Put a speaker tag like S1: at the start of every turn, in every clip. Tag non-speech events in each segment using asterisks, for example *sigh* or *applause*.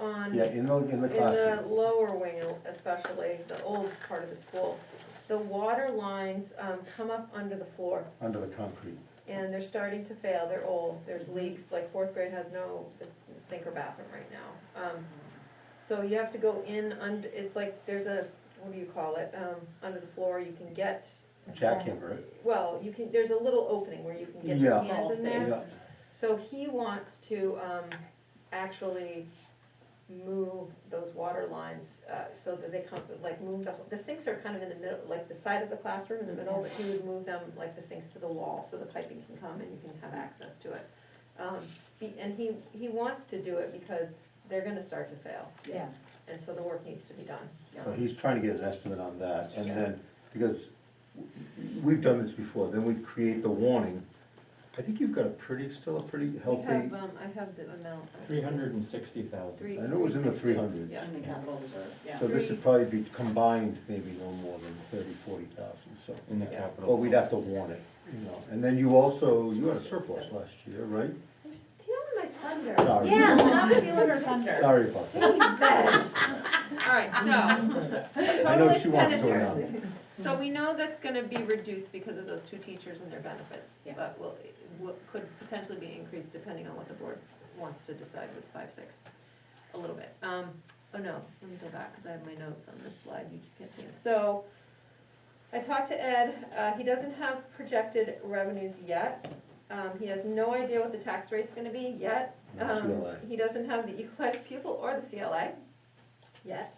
S1: on,
S2: Yeah,
S1: in
S2: in the, in the
S1: the
S2: classroom.
S1: lower wing especially, the old part of the school, the water lines, um, come up under the floor.
S2: under the concrete.
S1: and they're starting to fail, they're old, there's leaks, like fourth grade has no sink or bathroom right now. Um, So you have to go in under, it's like, there's a, what do you call it, um, under the floor, you can get,
S2: Jackhammer it.
S1: well, you can, there's a little opening where you can get your
S2: Yeah.
S1: hands in there.
S2: Yeah.
S1: So he wants to, um, actually move those water lines, uh, so that they come, like, move the, the sinks are kind of in the middle, like, the side of the classroom in the middle, but he would move them, like, the sinks to the wall, so the piping can come and you can have access to it. Um, he- and he, he wants to do it because they're gonna start to fail,
S3: Yeah,
S1: and so the work needs to be done.
S2: So he's trying to get an estimate on that, and then, because we've done this before, then we create the warning. I think you've got a pretty, still a pretty
S1: We
S2: healthy,
S1: have, um, I have the amount.
S4: Three hundred and sixty thousand.
S1: Three.
S2: I know it was in the three hundreds.
S1: Yeah.
S3: in the capital reserve, yeah.
S2: So this should probably be combined, maybe no more than thirty, forty thousand, so.
S4: In the
S1: Yeah.
S4: capital.
S2: But we'd have to warn it, you know, and then you also, you had a surplus last year, right?
S1: You're stealing my thunder.
S2: Sorry.
S3: Yeah, stop stealing her thunder.
S2: Sorry
S1: *laughs*
S2: about that.
S1: All right, so,
S2: I know she wants to announce it.
S1: so we know that's gonna be reduced because of those two teachers and their benefits,
S3: Yeah.
S1: but will, will, could potentially be increased depending on what the board wants to decide with five, six, a little bit. Um, oh no, let me go back, cause I have my notes on this slide, you just can't see them. So, I talked to Ed, uh, he doesn't have projected revenues yet. Um, he has no idea what the tax rate's gonna be yet,
S2: No
S1: um,
S2: CLA.
S1: he doesn't have the equalized pupil or the CLA yet.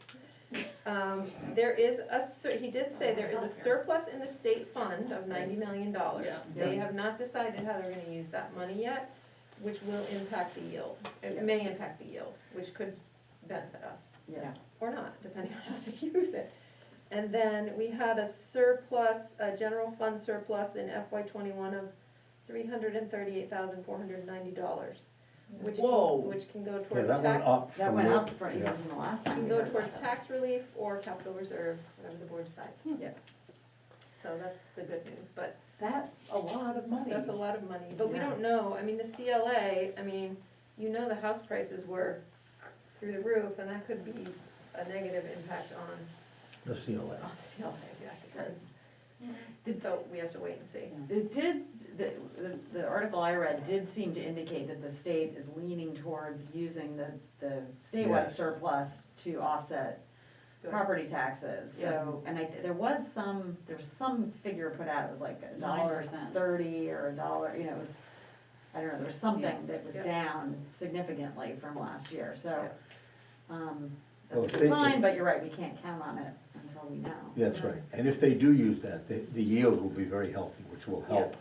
S1: Um, there is a, sur- he did say there is a surplus in the state fund of ninety million dollars.
S3: Yeah.
S1: They have not decided how they're gonna use that money yet, which will impact the yield. It may impact the yield, which could benefit us
S3: Yeah.
S1: or not, depending on how they use it. And then we had a surplus, a general fund surplus in FY twenty-one of three hundred and thirty-eight thousand, four hundred and ninety dollars, which,
S3: Whoa.
S1: can- which can go
S2: Yeah,
S1: towards
S2: that went
S1: tax,
S2: up.
S3: That
S2: from
S3: went
S2: the-
S3: up for, even
S2: yeah.
S3: from the last time.
S1: can
S3: we
S1: go
S3: heard
S1: towards
S3: about that.
S1: tax relief or capital reserve, whatever the board decides.
S3: Yeah.
S1: So that's the good news, but
S3: That's a lot of money.
S1: that's a lot of money, but we
S3: Yeah.
S1: don't know, I mean, the CLA, I mean, you know the house prices were through the roof, and that could be a negative impact on
S2: The CLA.
S1: Oh, the CLA, yeah, it depends.
S3: Mm-hmm.
S1: And so we have to wait and see.
S5: It did, the, the- the article I read did seem to indicate that the state is leaning towards using the, the statewide
S2: Yes.
S5: surplus to offset
S1: Good.
S5: property taxes, so, and I, there was some, there was some figure put out, it was like a dollar
S3: 9%.
S5: thirty or a dollar, you know, it was, I don't know, there was something that was
S1: Yeah.
S5: down significantly from last year, so, um,
S2: Well,
S5: that's a
S2: if they-
S5: good sign, but you're right, we can't count on it until we know.
S2: That's right, and if they do use that, the, the yield will be very healthy, which will help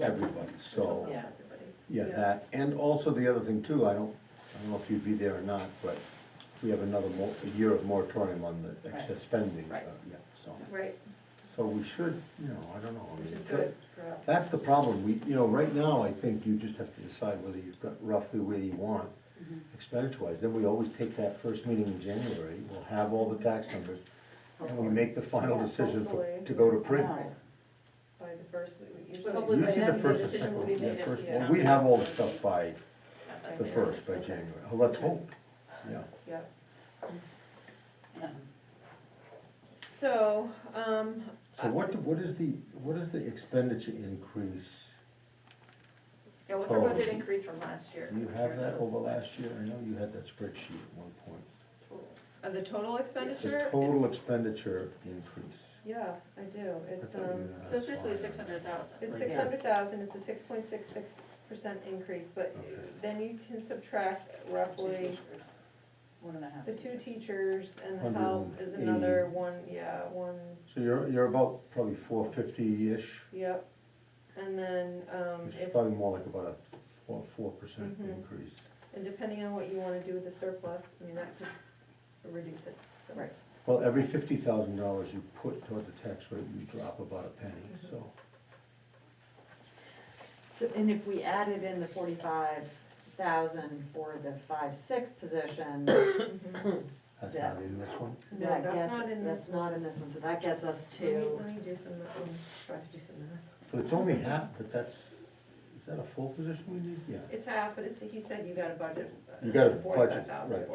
S2: everybody, so,
S1: Yeah.
S2: yeah, that, and also the other thing too, I don't, I don't know if you'd be there or not, but we have another mo, a year of moratorium on the excess spending, uh,
S5: Right.
S2: yeah, so,
S1: Right,
S2: so we should, you know, I don't know. I
S1: which
S2: mean,
S1: is good for us.
S2: That's the problem, we, you know, right now, I think you just have to decide whether you've got roughly where you want expenditure-wise, then we always take that first meeting in January, we'll have all the tax numbers, and we make the final
S1: Yeah,
S2: decision
S1: hopefully.
S2: to- to go to print.
S3: Wow.
S1: By the first, we we
S3: Hopefully
S1: usually.
S3: by
S2: Usually
S3: then
S2: the
S3: the
S2: first or
S3: decision will
S2: second,
S3: be
S2: yeah,
S3: made at
S2: first,
S3: the
S2: well,
S3: town
S2: we have all the
S3: council.
S2: stuff by the first, by January, Oh, let's hope, yeah.
S1: Yeah.
S3: Yeah.
S1: So, um,
S2: So what, what is the, what is the expenditure increase?
S3: Yeah, what's our
S2: Total.
S3: budget increase from last year?
S2: Do you have that over last year? I know you had that spreadsheet at one point.
S1: uh, the total
S2: The
S1: expenditure,
S2: total expenditure increase.
S1: yeah, I do,
S2: I
S1: it's,
S2: thought you
S1: um,
S2: had a
S3: So it's basically
S2: slide on
S3: six
S2: that.
S3: hundred thousand.
S1: it's
S4: Right.
S1: six hundred thousand, it's a six point six six percent increase, but
S2: Okay.
S1: then you can subtract roughly
S3: One and a half.
S1: the two teachers and the help is another one, yeah, one,
S2: So you're, you're about probably four fifty-ish,
S1: yep. And then, um,
S2: which
S1: if
S2: is probably more like about a four, four percent
S3: Mm-hmm.
S1: Mhm.
S2: increase.
S1: And depending on what you wanna do with the surplus, I mean, that could reduce it, so. Right.
S2: Well, every fifty thousand dollars you put toward the tax rate, you drop about a penny, so.
S5: So, and if we added in the forty-five thousand for the five-six position,
S2: That's
S5: Yeah.
S2: not in this one?
S1: No,
S5: that
S1: that's
S5: gets,
S1: not in this
S5: that's not in this one, so that gets us
S1: Let me,
S5: to,
S1: let me do some, um, try to do some math.
S2: But it's only half, but that's, is that a full position we need? Yeah.
S1: It's half, but it's, he said you got a budget. uh,
S2: You got a budget,
S1: Forty-five thousand.
S2: right.